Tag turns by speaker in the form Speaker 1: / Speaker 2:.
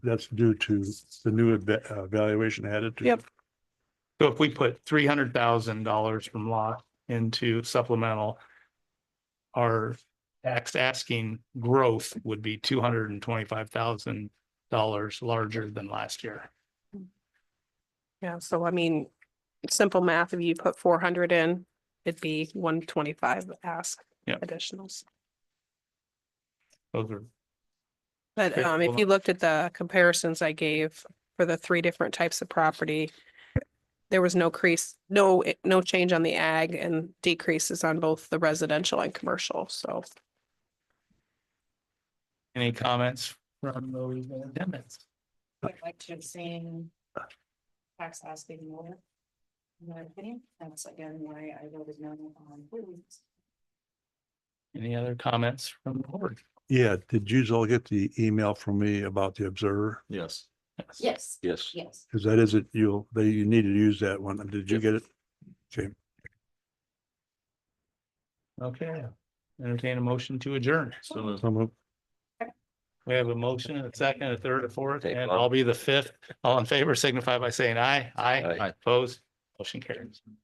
Speaker 1: that's due to the new eva- uh, valuation added to.
Speaker 2: Yep.
Speaker 3: So if we put three hundred thousand dollars from lot into supplemental. Our tax asking growth would be two hundred and twenty-five thousand dollars larger than last year.
Speaker 2: Yeah, so I mean, simple math, if you put four hundred in, it'd be one twenty-five ask
Speaker 3: Yeah.
Speaker 2: additionals.
Speaker 3: Those are,
Speaker 2: But
Speaker 3: Okay,
Speaker 2: um, if
Speaker 3: hold
Speaker 2: you looked at the comparisons I gave for the three different types of property, there was no crease, no, no change on the ag and decreases on both the residential and commercial, so.
Speaker 3: any comments from those amendments?
Speaker 4: I'd like to abstain. Tax asking more. In my opinion, that's again why I voted no on. Williams.
Speaker 3: Any other comments from the board?
Speaker 1: Yeah, did you all get the email from me about the observer?
Speaker 5: Yes,
Speaker 4: Yes,
Speaker 5: yes.
Speaker 4: yes.
Speaker 1: Because that is it, you'll, they, you need to use that one. Did you get it?
Speaker 3: Okay, entertain a motion to adjourn.
Speaker 5: So moved.
Speaker 1: Some of-
Speaker 3: We have a motion, a second, a third, a fourth,
Speaker 5: Take
Speaker 3: and
Speaker 5: one.
Speaker 3: I'll be the fifth. All in favor signify by saying aye. Aye.
Speaker 5: Aye.
Speaker 3: Opposed, motion carries.